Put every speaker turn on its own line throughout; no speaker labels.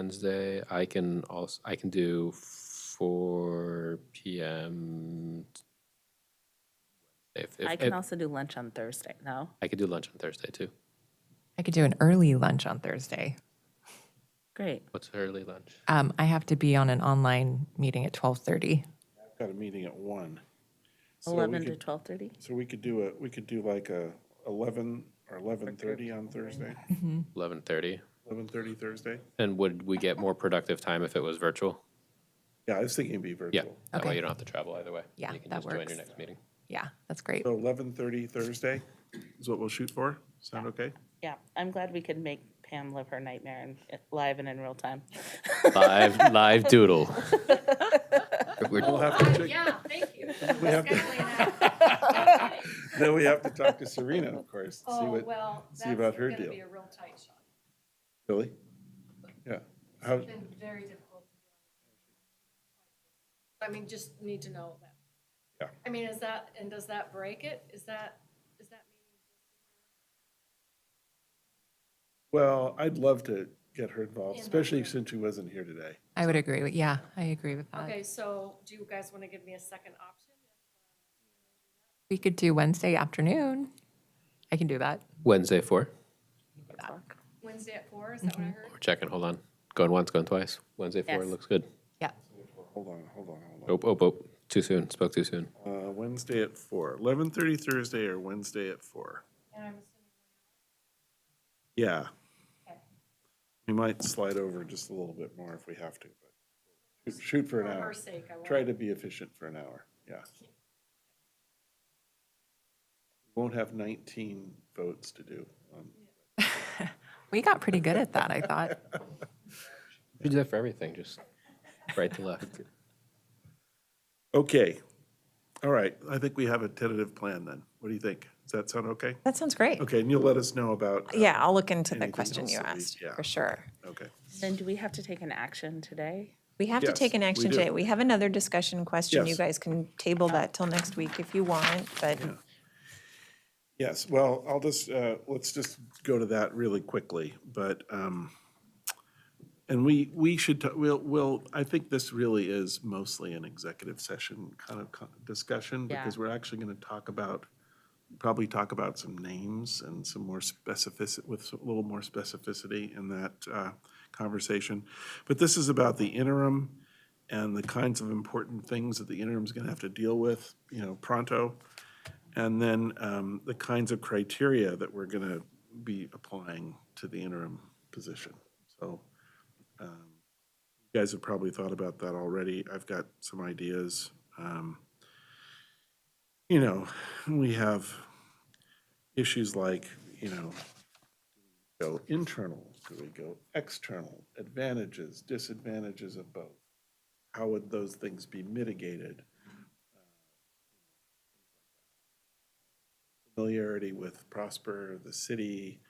Wednesday. I can also, I can do four PM. If, if,
I can
if,
also do lunch on Thursday, no?
I could do lunch on Thursday too.
I could do an early lunch on Thursday.
Great.
What's early lunch?
Um, I have to be on an online meeting at 12:30.
I've got a meeting at one. So we
11 to
could-
12:30?
So we could do a, we could do like a eleven or eleven thirty on Thursday,
Eleven thirty.
eleven thirty Thursday?
And would we get more productive time if it was virtual?
Yeah, I was thinking it'd be virtual.
Yeah. That way
Okay.
you don't have to travel either way.
Yeah,
You can
that
just join
works.
your next meeting.
Yeah, that's great.
So eleven thirty Thursday is what we'll shoot for. Sound okay?
Yeah, I'm glad we could make Pam live her nightmare and live and in real time.
Live, live doodle. We're-
We'll have to check,
Oh, Yeah, thank you.
we have to,
Scheduling that.
then we have to talk to Serena, of course, to see
Oh,
what,
well,
see
that's
about
going
her
to
deal.
be a real tight shot.
Billy? Yeah. How,
It's been very difficult. to do. I mean, just need to know that.
Yeah.
I mean, is that, and does that break it? Is that, is that
well, I'd love to get her involved,
Yeah.
especially since she wasn't here today.
I would agree with, yeah, I agree with that.
meaning? Okay, so do you guys want to give me a second option?
We could do Wednesday afternoon. I can do that.
Wednesday four.
Wednesday at four, is that what I heard?
We're checking. Hold on. Going once, going twice. Wednesday four
Yes.
looks good.
Yeah.
Hold on, hold on, hold on.
Oh, oh, oh. Too soon. Spoke too soon.
Uh, Wednesday at four. Eleven thirty Thursday or Wednesday at four?
And I'm assuming,
Yeah. We might slide over just a little bit more if we have to, but shoot- shoot for
for
an hour.
her sake, I
Try
will.
to be efficient for an hour, yeah. Won't have nineteen votes to do. um,
We got pretty good at that, I thought.
We do that for everything, just right to left.
Okay, all right, I think we have a tentative plan then. What do you think? Does that sound okay?
That sounds great.
Okay, and you'll let us know about. uh,
Yeah, I'll look into the
anything
question
else
you
that we-
asked,
yeah,
for sure.
Okay,
Then do we have to take an action today?
We have to
Yes,
take an
we
action
do.
today. We have another discussion question. You
Yes.
guys can table that till next week if you want, but
yes, well, I'll just, uh, let's just go to that really quickly, but, um, and we, we should, ta- we'll, we'll, I think this really is mostly an executive session kind of co- discussion,
Yeah.
because we're actually gonna talk about, probably talk about some names and some more specificity, with a little more specificity in that uh, conversation. But this is about the interim and the kinds of important things that the interim's gonna have to deal with, you know, pronto. And then um, the kinds of criteria that we're gonna be applying to the interim position. So um, you guys have probably thought about that already. I've got some ideas. Um, You know, we have issues like, you know, do we go internal, do we go external, advantages, disadvantages of both? How would those things be mitigated? Familiarity with Prosper, the city,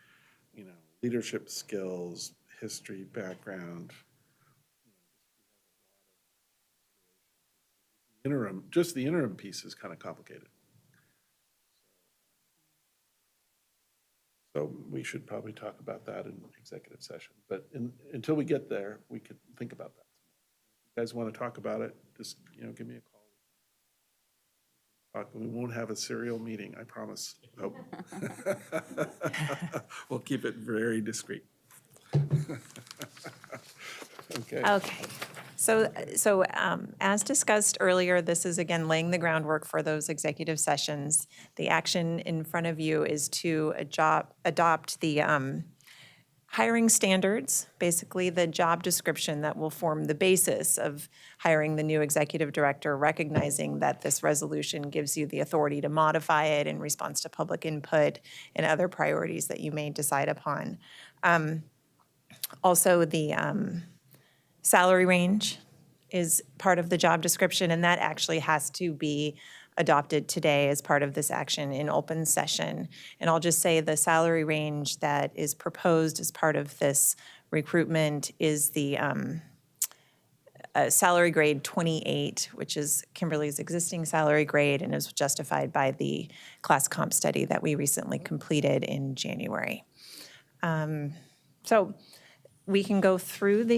you know, leadership skills, history, background. Interim, just the interim piece is kind of complicated. So we should probably talk about that in executive session, but in- until we get there, we could think about that. If you guys want to talk about it, just, you know, give me a call. Uh, We won't have a serial meeting, I promise. Nope. We'll keep it very discreet. Okay.
Okay. So, so um, as discussed earlier, this is again laying the groundwork for those executive sessions. The action in front of you is to adopt, adopt the um, hiring standards, basically the job description that will form the basis of hiring the new executive director, recognizing that this resolution gives you the authority to modify it in response to public input and other priorities that you may decide upon. Um, Also, the, um, salary range is part of the job description, and that actually has to be adopted today as part of this action in open session. And I'll just say the salary range that is proposed as part of this recruitment is the um, uh, salary grade 28, which is Kimberly's existing salary grade and is justified by the class comp study that we recently completed in January. Um, So we can go through the